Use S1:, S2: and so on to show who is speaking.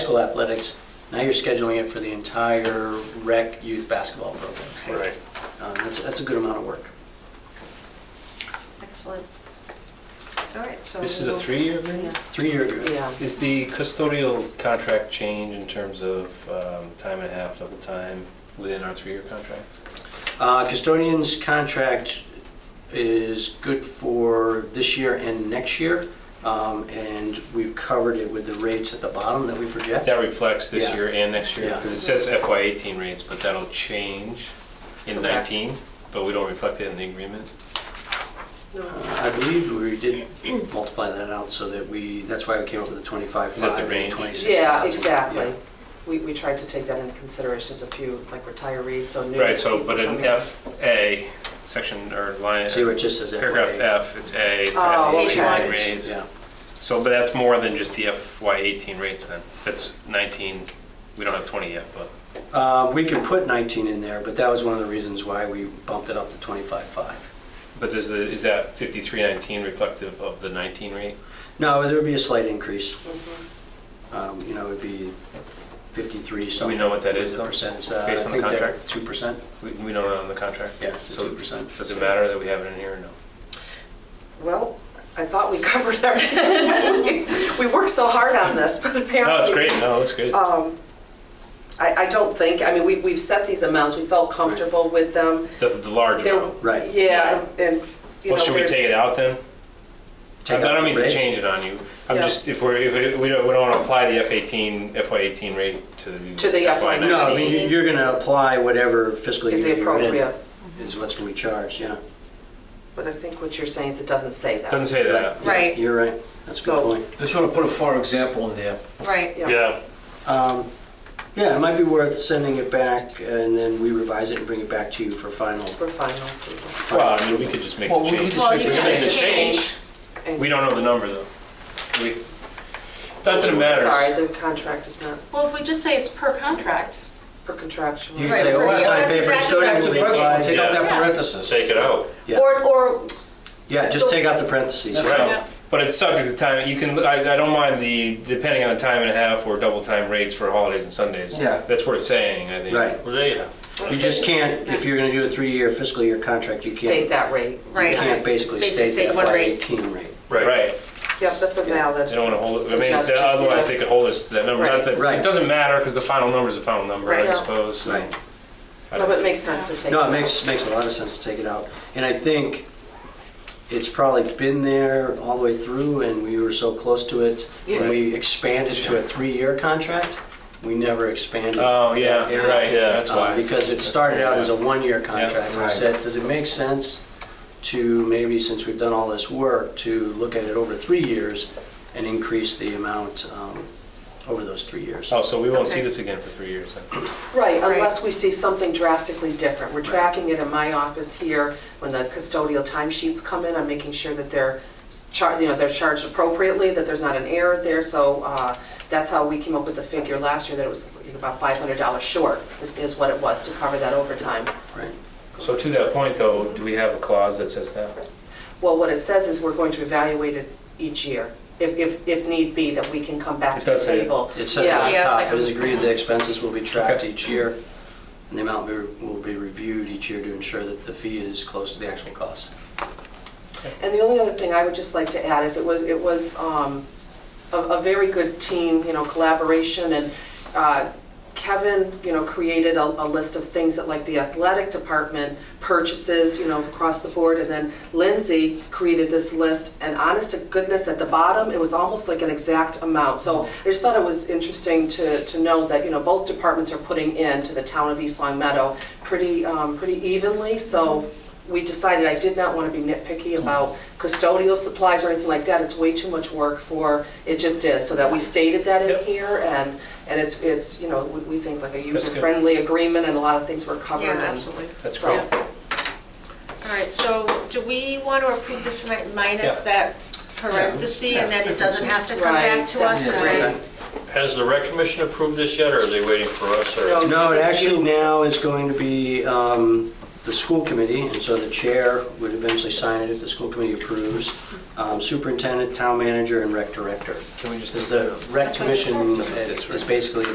S1: school athletics, now you're scheduling it for the entire rec youth basketball program.
S2: Right.
S1: Um, That's, that's a good amount of work.
S3: Excellent. All right, so.
S2: This is a
S3: we'll-
S2: three-year
S3: Yeah.
S2: agreement?
S1: Three-year agreement.
S4: Yeah.
S2: Is the custodial contract change in terms of um, time and a half, double time, within our three-year contract?
S1: Uh, Custodian's contract is good for this year and next year, um, and we've covered it with the rates at the bottom that we project.
S2: That reflects this
S1: Yeah.
S2: year and next year,
S1: Yeah.
S2: because it says FY eighteen rates, but that'll change in
S4: Correct.
S2: nineteen, but we don't reflect it in the agreement.
S4: No.
S1: Uh, I believe we did multiply that out so that we, that's why we came up with the 25.5
S2: Is that the
S1: and
S2: range?
S1: 26,000.
S4: Yeah, exactly.
S1: Yeah.
S4: We, we tried to take that into consideration, as a few, like retirees, so new.
S2: Right, so, but in
S4: people
S2: FA, section or line,
S1: See where it just says FYA?
S2: paragraph F, it's A, it's
S4: Oh,
S2: FY
S4: okay.
S2: eighteen
S1: Yeah,
S2: rates.
S1: Yeah,
S2: So, but that's more than just the FY eighteen rates then, that's nineteen, we don't have twenty yet, but.
S1: Uh, we can put 19 in there, but that was one of the reasons why we bumped it up to 25.5.
S2: But is, the, is that 5319 reflective of the 19 rate?
S1: No, there would be a slight increase.
S4: coming in. Mhm.
S1: Um, You know, it'd be 53
S2: So
S1: something.
S2: we know what that is,
S1: with the
S2: though,
S1: Percent. Uh,
S2: based on
S1: I
S2: the
S1: think they're
S2: contract?
S1: 2%.
S2: We, we know that on the contract?
S1: Yeah, it's a
S2: So
S1: 2%.
S2: Does it matter that we have it in here or no?
S4: Well, I thought we covered everything. We worked so hard on this, but apparently.
S2: No, it's great, no, it's good.
S4: Um, I, I don't think, I mean, we, we've set these amounts, we felt comfortable with them.
S2: The, the large
S4: They're-
S2: amount.
S1: Right.
S4: Yeah, and- and, you know.
S2: Well, should we
S4: there's-
S2: take it out then? I
S1: Take out
S2: don't
S1: the
S2: mean to
S1: raise.
S2: change it on you. I'm
S4: Yeah.
S2: just, if we're, if it- we don't, we don't want to apply the F18, FY18 rate to the.
S4: To the FY19.
S1: No, I mean, you- you're going to apply whatever fiscal
S4: Is
S1: year
S4: the
S1: you're in
S4: appropriate,
S1: is what's going to be charged, yeah.
S4: but I think what you're saying is it doesn't say that.
S2: Doesn't say that.
S1: Yeah,
S3: Right.
S1: You're right. That's a good
S4: So-
S1: point.
S5: I just want to put a far example in there.
S3: Right.
S4: Yeah.
S1: Um, Yeah, it might be worth sending it back and then we revise it and bring it back to you for final.
S4: For final approval.
S2: Well, I mean, we could just make
S5: Well,
S2: the
S5: we could
S2: change.
S5: just
S3: Well,
S5: make
S3: you
S2: We
S5: the
S2: can make
S3: can
S2: the
S5: change.
S3: change.
S2: change.
S4: And-
S2: We don't know the number though. We, not that it matters.
S4: Sorry, the contract is not
S3: Well, if we just say it's per contract.
S4: per contractual.
S1: You
S3: Right,
S1: say,
S3: for
S1: oh,
S3: you.
S1: that's on
S3: That's
S1: paper,
S3: exactly what I was
S1: custodial,
S3: thinking.
S1: provide-
S5: Take out that
S3: Yeah.
S5: parenthesis.
S2: Take it out.
S1: Yeah.
S3: Or, or,
S1: Yeah, just take out the parentheses.
S5: That's
S2: Right.
S3: Yeah.
S2: But it's subject to time, you can, I, I don't mind the, depending on the time and a half or double time rates for holidays and Sundays.
S5: Yeah.
S2: That's worth saying, I think.
S1: Right.
S2: Well, there you go.
S1: You just can't, if you're going to do a three-year fiscal year contract, you
S4: State
S1: can't,
S4: that rate.
S1: you
S3: Right.
S1: can't basically
S3: Basically
S1: state the
S3: state one rate.
S1: FY18 rate.
S2: Right.
S4: Yeah, that's a valid.
S2: They don't wanna hold, I mean,
S4: suggestion,
S2: otherwise
S4: yeah.
S2: they could hold us to that number. Not that-
S1: Right.
S2: It doesn't matter, because the final number's the final number,
S3: Right.
S2: I
S3: Yeah.
S2: suppose. so.
S1: Right.
S2: I
S4: No,
S2: don't-
S4: but it makes sense to take.
S1: No, it makes, makes a lot of sense to take it out. And I think it's probably been there all the way through, and we were so close to it. When
S4: Yeah.
S1: we expanded to a three-year contract, we never expanded.
S2: Oh, yeah,
S1: that
S2: you're
S1: area,
S2: right, yeah, that's
S1: uh,
S2: why.
S1: Because it started out as a one-year contract. We
S5: Right.
S1: said, does it make sense to, maybe since we've done all this work, to look at it over three years and increase the amount um, over those three years?
S2: Oh, so we won't see
S3: Okay.
S2: this again for three years then?
S4: Right, unless we see something drastically different. We're tracking it in my office here, when the custodial timesheets come in, I'm making sure that they're charged, you know, they're charged appropriately, that there's not an error there, so uh, that's how we came up with the figure last year, that it was about $500 short, is is what it was to cover that overtime.
S1: Right?
S2: So to that point though, do we have a clause that says that?
S4: Well, what it says is we're going to evaluate it each year, if, if, if need be, that we can come back
S2: It
S4: to the
S2: does say-
S4: table.
S1: It says
S4: Yeah.
S1: at the
S3: Yeah.
S1: top, it is agreed the expenses will be tracked each year, and the amount be- will be reviewed each year to ensure that the fee is close to the actual cost.
S4: And the only other thing I would just like to add is it was, it was um, a, a very good team, you know, collaboration, and uh, Kevin, you know, created a, a list of things that like the athletic department purchases, you know, across the board, and then Lindsay created this list, and honest to goodness, at the bottom, it was almost like an exact amount, so I just thought it was interesting to, to know that, you know, both departments are putting in to the town of East Long Meadow pretty, um, pretty evenly, so we decided I did not want to be nitpicky
S2: Mm-hmm.
S4: about custodial supplies or anything like that. It's way too much work for, it just is, so that we stated that in
S2: Yep.
S4: here and, and it's, it's, you know, we we think like a
S2: good.
S4: user-friendly agreement and a lot of things were covered.
S3: yeah,
S4: and-
S3: absolutely.
S2: That's
S4: So-
S2: great.
S3: All right, so do we want to approve this mi- minus
S2: Yeah.
S3: that parenthesis and then it doesn't have to come back
S4: Right,
S3: to us?
S4: that's
S3: and then-
S4: right.
S6: Has the rec commission approved this yet, or are they waiting for us, or?
S4: No,
S1: No, it
S4: because
S1: actually
S4: you-
S1: now is going to be um, the school committee, and so the chair would eventually sign it if the school committee approves, um, superintendent, town manager, and rec director.
S2: Can we just?
S1: Because the rec
S3: That's what I said.
S1: commission
S2: Just like this,
S1: is
S2: right?
S1: basically